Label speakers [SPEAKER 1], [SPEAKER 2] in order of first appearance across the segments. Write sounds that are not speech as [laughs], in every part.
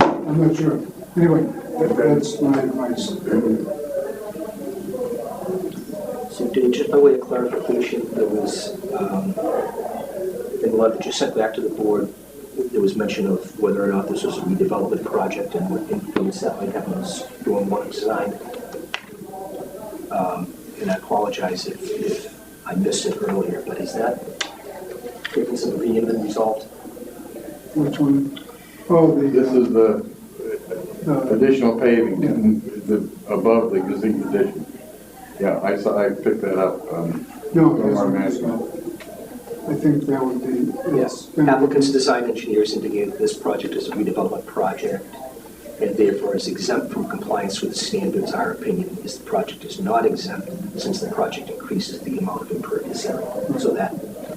[SPEAKER 1] I'm not sure. Anyway, that- that's my advice.
[SPEAKER 2] So Dave, just by way of clarification, there was, um, in the letter that you sent back to the board, there was mention of whether or not this was a redevelopment project and what influence that might have on stormwater design. Um, And I apologize if, if I missed it earlier, but is that, is it being resolved?
[SPEAKER 1] Which one? Oh,
[SPEAKER 3] This
[SPEAKER 1] the,
[SPEAKER 3] is the
[SPEAKER 1] uh, uh,
[SPEAKER 3] additional paving, the, above the existing addition. Yeah, I saw, I picked that up, um,
[SPEAKER 1] no,
[SPEAKER 3] Stormwater
[SPEAKER 1] that's not
[SPEAKER 3] management.
[SPEAKER 1] uh, I think that would be. uh,
[SPEAKER 2] Yes, applicant's design engineers indicated this project is a redevelopment project and therefore is exempt from compliance with the standards. Our opinion is the project is not exempt since the project increases the amount of impervious area. So that,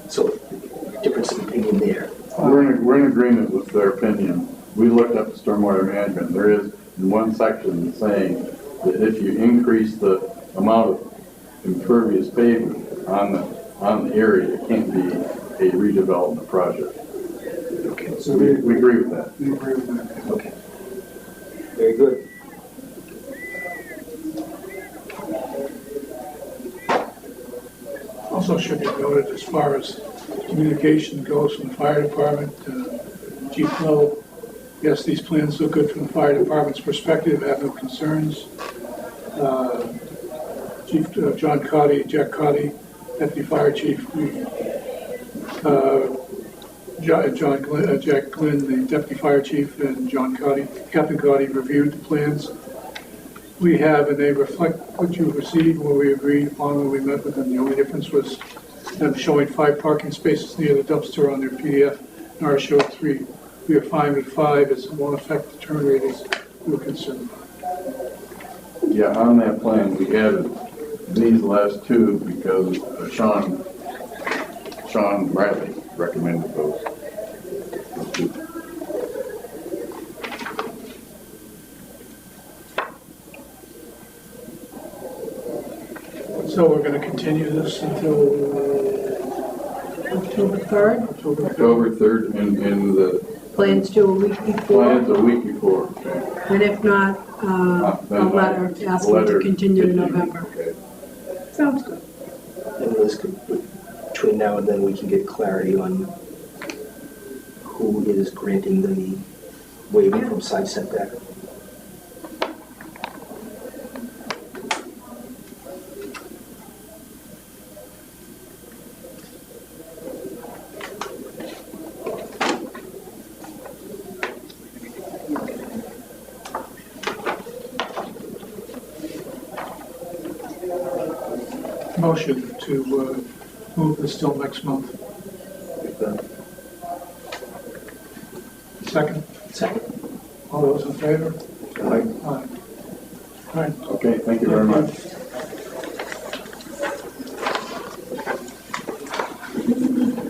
[SPEAKER 2] so difference of opinion there.
[SPEAKER 3] we're in, we're in agreement with their opinion. We looked up stormwater management, there is in one section saying that if you increase the amount of impervious pavement on the, on the area, it can't be a redevelopment project.
[SPEAKER 2] Okay,
[SPEAKER 1] So
[SPEAKER 3] We,
[SPEAKER 1] they,
[SPEAKER 3] we agree with that.
[SPEAKER 1] they agree with that.
[SPEAKER 2] okay. Very good.
[SPEAKER 4] Also should be noted as far as communication goes from the fire department, uh, Chief Lowe, yes, these plans look good from the fire department's perspective, I have no concerns. Uh, Chief uh, John Cotty, Jack Cotty, Deputy Fire Chief, we, uh, Jo- John, Glyn- uh, Jack Glynn, the Deputy Fire Chief, and John Cotty, Captain Cotty reviewed the plans we have, and they reflect what you received, what we agreed upon when we met with them. The only difference was them showing five parking spaces near the dumpster on their PDF, and ours showed three. We are fine with five, it won't affect the turn radius we were concerned about.
[SPEAKER 3] Yeah, on that plan, we added these last two because uh, Sean, Sean Bradley recommended those.
[SPEAKER 4] So we're gonna continue this until uh,
[SPEAKER 5] October 3rd,
[SPEAKER 4] October 3rd.
[SPEAKER 3] October 3rd and, and the
[SPEAKER 5] plans due a week before,
[SPEAKER 3] plans a week before.
[SPEAKER 5] and if not, uh, a letter asking to
[SPEAKER 3] Letter
[SPEAKER 5] continue to
[SPEAKER 3] continue,
[SPEAKER 5] November.
[SPEAKER 3] okay.
[SPEAKER 5] Sounds good.
[SPEAKER 2] And this could, between now and then, we can get clarity on who is granting the waiver from side setback.
[SPEAKER 4] Motion to uh, move this till next month. Second,
[SPEAKER 2] Second.
[SPEAKER 4] all those in favor?
[SPEAKER 3] Aye.
[SPEAKER 4] Aye. All right,
[SPEAKER 3] Okay, thank you very much.
[SPEAKER 5] Yeah. They're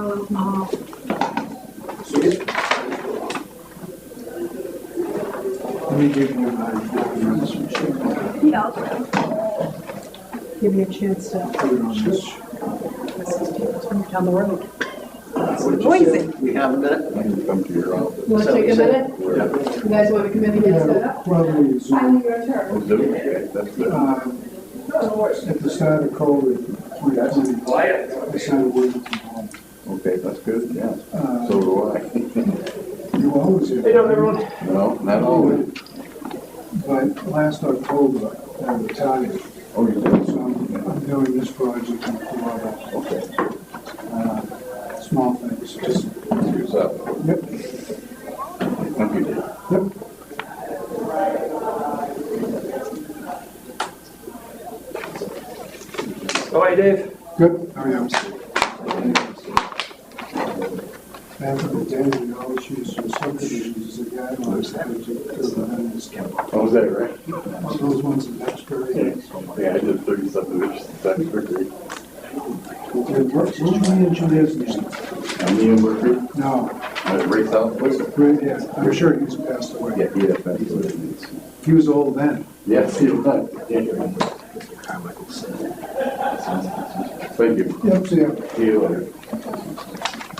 [SPEAKER 5] all out in the hall.
[SPEAKER 1] Let me give you my, this one, check it
[SPEAKER 5] Yeah. Give you a chance to
[SPEAKER 1] out on this.
[SPEAKER 5] down the road. Noisy.
[SPEAKER 2] We have a minute?
[SPEAKER 3] I can come to your office.
[SPEAKER 5] You want to take a minute?
[SPEAKER 3] Where-
[SPEAKER 5] You guys want to come in and get set
[SPEAKER 1] Yeah,
[SPEAKER 5] up?
[SPEAKER 1] Probably Zoom.
[SPEAKER 6] Finally, your turn.
[SPEAKER 3] Zoom, okay, that's good.
[SPEAKER 1] Uh, At the start of COVID, we uh, decided working from home.
[SPEAKER 3] Okay, that's good, yeah.
[SPEAKER 1] Uh,
[SPEAKER 3] So do
[SPEAKER 1] You always have.
[SPEAKER 3] I. [laughs] No, not always.
[SPEAKER 1] But last October, I retired,
[SPEAKER 3] Oh, you
[SPEAKER 1] so
[SPEAKER 3] did?
[SPEAKER 1] I'm I'm doing this project in Florida,
[SPEAKER 3] Okay.
[SPEAKER 1] uh, small things, just,
[SPEAKER 3] Yourself. [laughs]
[SPEAKER 1] yep,
[SPEAKER 3] Thank you, Dave.
[SPEAKER 1] yep.
[SPEAKER 7] All right, Dave.
[SPEAKER 1] Good, how are you? Back in the day, we always used some subdivisions as a guideline, so we took care of the homeless.
[SPEAKER 3] Oh, was that right?
[SPEAKER 1] Those ones in Duxbury.
[SPEAKER 3] Yeah, I did thirty subdivisions, that's pretty.
[SPEAKER 1] And what, what were the engineer's name?
[SPEAKER 3] And Ian Murphy,
[SPEAKER 1] No,
[SPEAKER 3] uh, Ray Southwood.
[SPEAKER 1] right, yeah, I'm sure he's passed away.
[SPEAKER 3] Yeah, he had that. was-
[SPEAKER 1] He was old then.
[SPEAKER 3] Yes, he was. Thank you.
[SPEAKER 1] Yep, so, yeah.
[SPEAKER 3] See you later.